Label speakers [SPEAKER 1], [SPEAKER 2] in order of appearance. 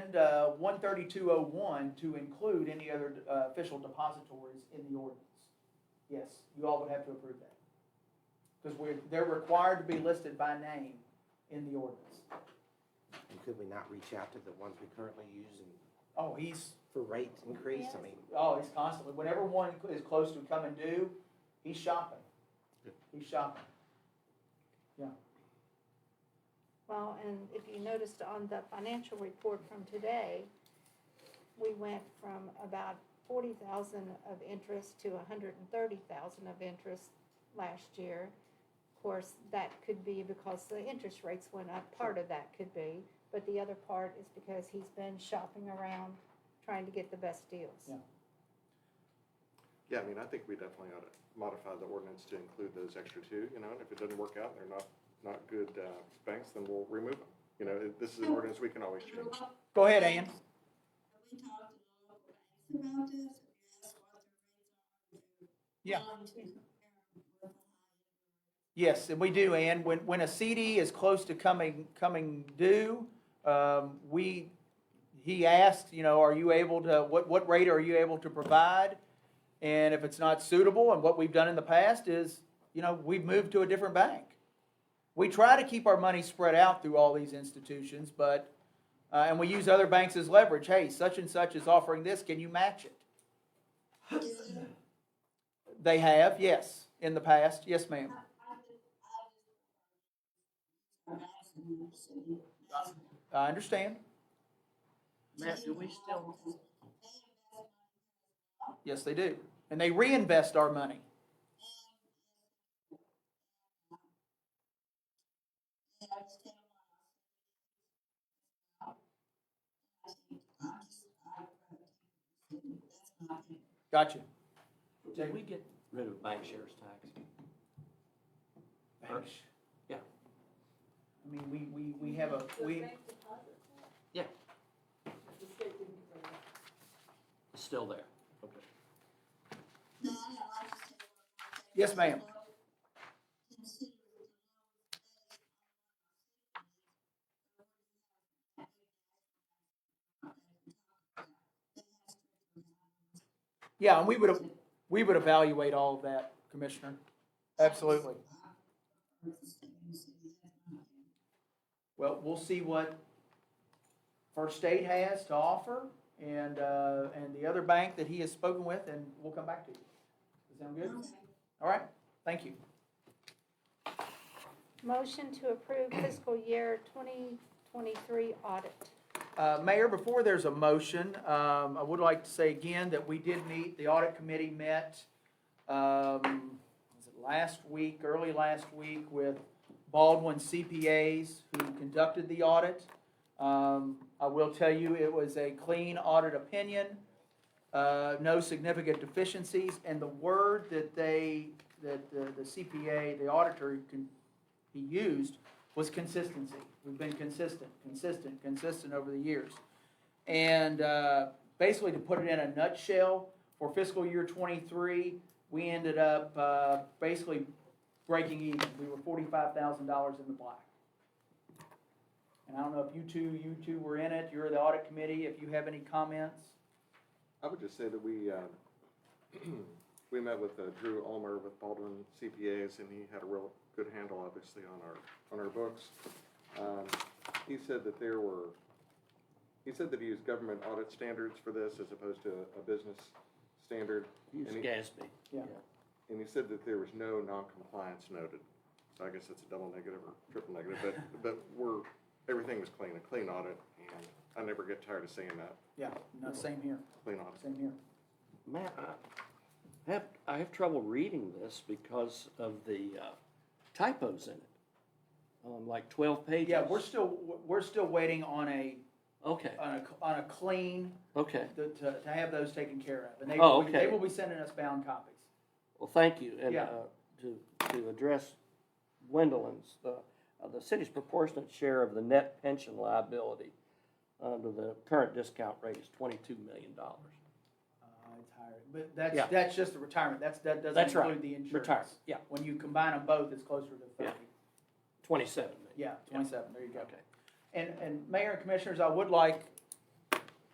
[SPEAKER 1] amend, uh, one thirty-two oh one to include any other, uh, official depositories in the ordinance. Yes, you all would have to approve that. Because we're, they're required to be listed by name in the ordinance.
[SPEAKER 2] And could we not reach out to the ones we currently use and
[SPEAKER 1] Oh, he's,
[SPEAKER 2] for rate increase? I mean,
[SPEAKER 1] oh, he's constantly, whenever one is close to coming due, he's shopping. He's shopping.
[SPEAKER 3] Well, and if you noticed on the financial report from today, we went from about forty thousand of interest to hundred and thirty thousand of interest last year. Of course, that could be because the interest rates went up, part of that could be, but the other part is because he's been shopping around, trying to get the best deals.
[SPEAKER 1] Yeah.
[SPEAKER 4] Yeah, I mean, I think we definitely ought to modify the ordinance to include those extra two, you know, and if it doesn't work out, and they're not, not good uh, banks, then we'll remove them. You know, it- this is an ordinance we can always change.
[SPEAKER 1] Go ahead, Ann.
[SPEAKER 5] We talked to local banks about this, we asked what their
[SPEAKER 1] Yeah.
[SPEAKER 5] rates are. Um, to compare
[SPEAKER 1] Yes, and we do, and when, when a CD is close to coming, coming due, um, we, he asks, you know, are you able to, what, what rate are you able to provide? And if it's not suitable, and what we've done in the past is, you know, we've moved to a different bank. We try to keep our money spread out through all these institutions, but, uh, and we use other banks as leverage, hey, such and such is offering this, can you match it?
[SPEAKER 5] with the higher-
[SPEAKER 1] They have, yes, in the past, yes, ma'am.
[SPEAKER 5] I think- I just- Banks in the city.
[SPEAKER 1] I understand,
[SPEAKER 6] Matt, do we still,
[SPEAKER 1] yes, they do, and they reinvest our money.
[SPEAKER 5] And I just didn't want to- I just- I- that's my opinion.
[SPEAKER 1] Gotcha.
[SPEAKER 6] did we get rid of bank shares tax?
[SPEAKER 1] Thanks.
[SPEAKER 6] Yeah.
[SPEAKER 1] I mean, we, we, we have a, we,
[SPEAKER 6] It's still there. Okay.
[SPEAKER 5] No, I know, I just didn't want to-
[SPEAKER 1] yes, ma'am.
[SPEAKER 5] Consider it
[SPEAKER 1] Yeah, and we would, we would evaluate all of that, Commissioner. Absolutely. Well, we'll see what First State has to offer and, uh, and the other bank that he has spoken with, and we'll come back to you. Does that sound good? All right, thank you.
[SPEAKER 3] Motion to approve fiscal year twenty twenty-three audit.
[SPEAKER 1] Uh, Mayor, before there's a motion, um, I would like to say again that we did meet, the audit committee met, um, was it last week, early last week with Baldwin CPAs who conducted the audit. Um, I will tell you, it was a clean audit opinion, uh, no significant deficiencies, and the word that they, that the the CPA, the auditor, can, he used was consistency. We've been consistent, consistent, consistent over the years. And uh, basically, to put it in a nutshell, for fiscal year '23, we ended up uh, basically breaking even. We were forty-five thousand dollars in the black. And I don't know if you two, you two were in it. You're the audit committee. If you have any comments,
[SPEAKER 4] I would just say that we, uh, we met with uh, Drew Ulmer with Baldwin CPAs, and he had a real good handle, obviously, on our, on our books. Um, He said that there were, he said that he used government audit standards for this as opposed to a business standard.
[SPEAKER 6] Use
[SPEAKER 4] Any-
[SPEAKER 6] Gatsby.
[SPEAKER 1] Yeah.
[SPEAKER 4] And he said that there was no non-compliance noted. So I guess that's a double negative or triple negative, but, but we're, everything was clean, a clean audit, and I never get tired of saying that,
[SPEAKER 1] yeah, no, same here,
[SPEAKER 4] clean audit.
[SPEAKER 1] same here.
[SPEAKER 6] Matt, I have, I have trouble reading this because of the uh, typos in it. Um, like twelve pages.
[SPEAKER 1] Yeah, we're still we're still waiting on a
[SPEAKER 6] Okay,
[SPEAKER 1] on a on a clean
[SPEAKER 6] okay.
[SPEAKER 1] to, to, to have those taken care of. And they,
[SPEAKER 6] Oh,
[SPEAKER 1] will be- they
[SPEAKER 6] okay.
[SPEAKER 1] will be sending us bound copies.
[SPEAKER 6] Well, thank you. And
[SPEAKER 1] Yeah.
[SPEAKER 6] uh, to, to address Wendellin's, the, uh, the city's proportionate share of the net pension liability under the current discount rate is twenty-two million dollars.
[SPEAKER 1] Uh, it's higher, but that's,
[SPEAKER 6] Yeah.
[SPEAKER 1] that's just the retirement, that's, that doesn't
[SPEAKER 6] That's right.
[SPEAKER 1] include the insurance.
[SPEAKER 6] Retirement, yeah,
[SPEAKER 1] When you combine them both, it's closer to
[SPEAKER 6] Yeah.
[SPEAKER 1] thirty,
[SPEAKER 6] twenty-seven million.
[SPEAKER 1] yeah, twenty-seven, there you go.
[SPEAKER 6] Okay.
[SPEAKER 1] And, and Mayor and Commissioners, I would like